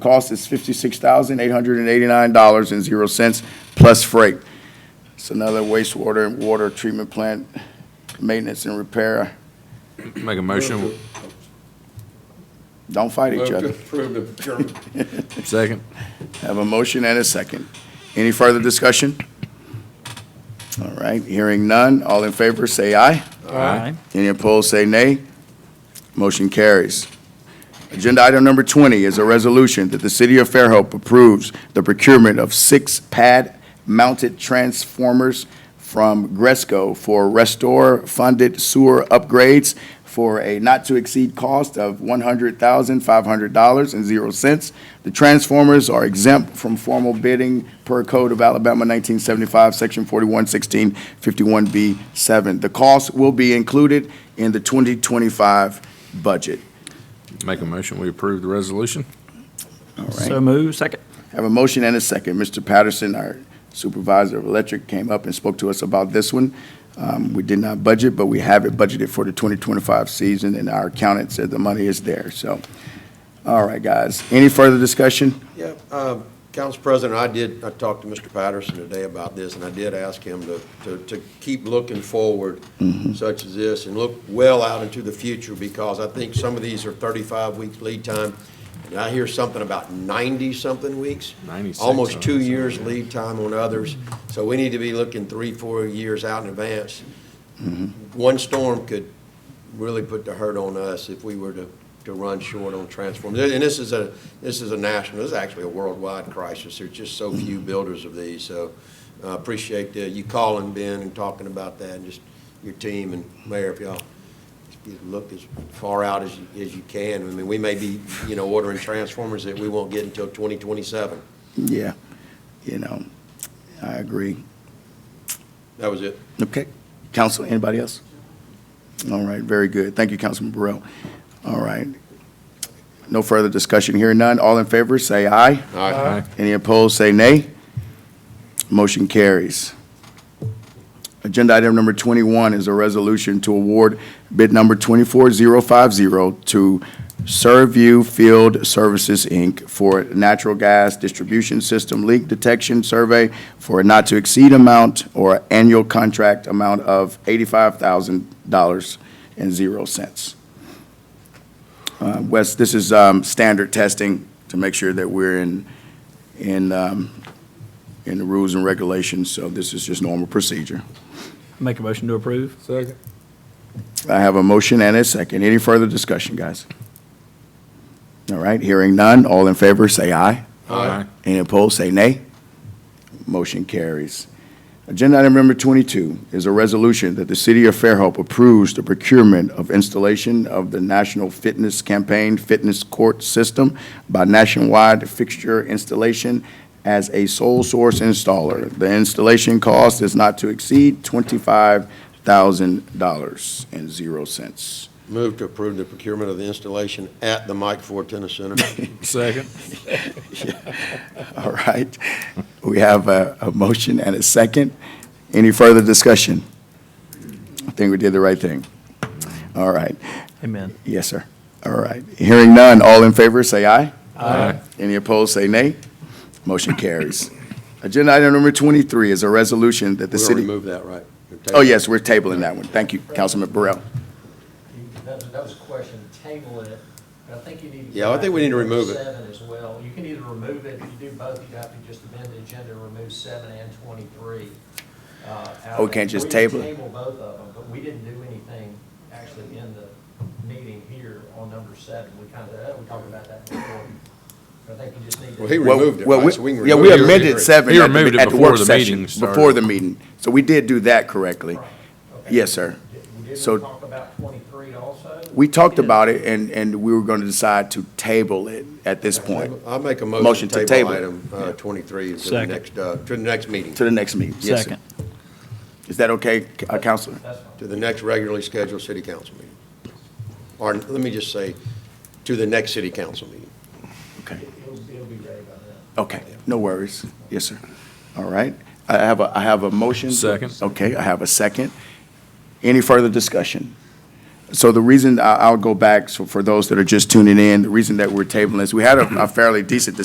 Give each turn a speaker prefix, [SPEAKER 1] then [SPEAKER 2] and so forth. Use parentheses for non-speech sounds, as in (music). [SPEAKER 1] Cost is fifty-six thousand, eight hundred and eighty-nine dollars and zero cents plus freight. It's another wastewater and water treatment plant maintenance and repair.
[SPEAKER 2] Make a motion,
[SPEAKER 1] Don't fight each other.
[SPEAKER 3] Approve the German.
[SPEAKER 2] second.
[SPEAKER 1] Have a motion and a second. Any further discussion? All right, hearing none. All in favor, say aye.
[SPEAKER 2] Aye.
[SPEAKER 1] Any opposed, say nay. Motion carries. Agenda item number 20 is a resolution that the City of Fairhope approves the procurement of six pad-mounted transformers from Gresco for restore-funded sewer upgrades for a not-to-exceed cost of $100,500.00. The transformers are exempt from formal bidding per Code of Alabama 1975, Section 4116, 51B7. The cost will be included in the 2025 budget.
[SPEAKER 2] Make a motion, we approve the resolution.
[SPEAKER 1] All right.
[SPEAKER 4] So move second.
[SPEAKER 1] Have a motion and a second. Mr. Patterson, our supervisor of electric, came up and spoke to us about this one. Um, We did not budget, but we have it budgeted for the 2025 season, and our accountant said the money is there, so. All right, guys. Any further discussion?
[SPEAKER 5] Yeah, um, Council President, I did, I talked to Mr. Patterson today about this, and I did ask him to, to, to keep looking forward such as this, and look well out into the future, because I think some of these are thirty-five weeks lead time, and I hear something about ninety-something weeks.
[SPEAKER 2] 96 on
[SPEAKER 5] Almost two
[SPEAKER 2] some,
[SPEAKER 5] years
[SPEAKER 2] yeah.
[SPEAKER 5] lead time on others, so we need to be looking three, four years out in advance. One storm could really put the hurt on us if we were to, to run short on transformers. And this is a, this is a national, this is actually a worldwide crisis. There's just so few builders of these, so I appreciate uh, you calling, Ben, and talking about that, and just your team and Mayor, if y'all you look as far out as, you- as you can. I mean, we may be, you know, ordering transformers that we won't get until 2027.
[SPEAKER 1] Yeah, you know, I agree.
[SPEAKER 5] That was it.
[SPEAKER 1] Okay. Council, anybody else? All right, very good. Thank you, Councilman Burrell. All right. No further discussion here, none. All in favor, say aye.
[SPEAKER 2] Aye.
[SPEAKER 1] Any opposed, say nay. Motion carries. Agenda item number 21 is a resolution to award bid number 24050 to Serview Field Services, Inc. for natural gas distribution system leak detection survey for a not-to-exceed amount or annual contract amount of $85,000 and zero cents. Uh, Wes, this is um, standard testing to make sure that we're in in, um, in the rules and regulations, so this is just normal procedure.
[SPEAKER 4] Make a motion to approve.
[SPEAKER 2] Second.
[SPEAKER 1] I have a motion and a second. Any further discussion, guys? All right, hearing none. All in favor, say aye.
[SPEAKER 2] Aye.
[SPEAKER 1] Any opposed, say nay. Motion carries. Agenda item number 22 is a resolution that the City of Fairhope approves the procurement of installation of the National Fitness Campaign Fitness Court System by Nationwide Fixture Installation as a sole source installer. The installation cost is not to exceed $25,000 and zero cents.
[SPEAKER 5] Move to approve the procurement of the installation at the Mike Ford Tennis Center.
[SPEAKER 2] Second.
[SPEAKER 1] (laughs) All right. We have a, a motion and a second. Any further discussion? I think we did the right thing. All right.
[SPEAKER 4] Amen.
[SPEAKER 1] Yes, sir. All right. Hearing none, all in favor, say aye.
[SPEAKER 2] Aye.
[SPEAKER 1] Any opposed, say nay. Motion carries. (coughs) Agenda item number 23 is a resolution that the
[SPEAKER 5] We'll
[SPEAKER 1] city.
[SPEAKER 5] remove that, right?
[SPEAKER 1] Oh, yes, we're tabling that one. Thank you, Councilman Burrell.
[SPEAKER 6] That was, that was a question, table it, but I think you need to. go
[SPEAKER 5] Yeah, I
[SPEAKER 6] back
[SPEAKER 5] think we need to remove it.
[SPEAKER 6] Seven as well. You can either remove it, if you do both, you'd have to just amend the agenda, and remove seven and twenty-three. uh, out
[SPEAKER 1] Oh, we
[SPEAKER 6] of-
[SPEAKER 1] can't just
[SPEAKER 6] we
[SPEAKER 1] table it?
[SPEAKER 6] Table both of them, but we didn't do anything actually in the meeting here on number seven. We kind of, we talked about that before. But I think you just need to.
[SPEAKER 5] Well, he
[SPEAKER 1] Well,
[SPEAKER 5] removed it,
[SPEAKER 1] well,
[SPEAKER 5] right?
[SPEAKER 1] we-
[SPEAKER 5] So we can
[SPEAKER 1] Yeah,
[SPEAKER 5] remove
[SPEAKER 1] we
[SPEAKER 5] it.
[SPEAKER 1] amended seven
[SPEAKER 2] He
[SPEAKER 1] at
[SPEAKER 2] removed
[SPEAKER 1] the,
[SPEAKER 2] it
[SPEAKER 1] at the
[SPEAKER 2] before
[SPEAKER 1] work
[SPEAKER 2] the
[SPEAKER 1] session,
[SPEAKER 2] meeting started.
[SPEAKER 1] before the meeting. So we did do that correctly.
[SPEAKER 6] Right. Okay.
[SPEAKER 1] Yes, sir.
[SPEAKER 6] Did
[SPEAKER 1] So-
[SPEAKER 6] we talk about twenty-three also?
[SPEAKER 1] We talked
[SPEAKER 6] Yeah.
[SPEAKER 1] about it, and, and we were going to decide to table it at this point,
[SPEAKER 5] I'll make a
[SPEAKER 1] Motion
[SPEAKER 5] motion
[SPEAKER 1] to
[SPEAKER 5] to table
[SPEAKER 1] table.
[SPEAKER 5] item uh, 23 to the
[SPEAKER 4] Second.
[SPEAKER 5] next, uh, to the next meeting,
[SPEAKER 1] to the next meeting. Yes, sir.
[SPEAKER 4] Second.
[SPEAKER 1] Is that okay, C- uh, Counselor?
[SPEAKER 6] That's fine.
[SPEAKER 5] to the next regularly scheduled city council meeting. Or, let me just say, to the next city council meeting.
[SPEAKER 1] Okay,
[SPEAKER 6] It'll, it'll be ready by then.
[SPEAKER 1] okay, no worries. Yes, sir. All right, I have a, I have a motion.
[SPEAKER 2] Second.
[SPEAKER 1] Okay, I have a second. Any further discussion? So the reason, I- I'll go back, so for those that are just tuning in, the reason that we're tabling this, we had a a fairly decent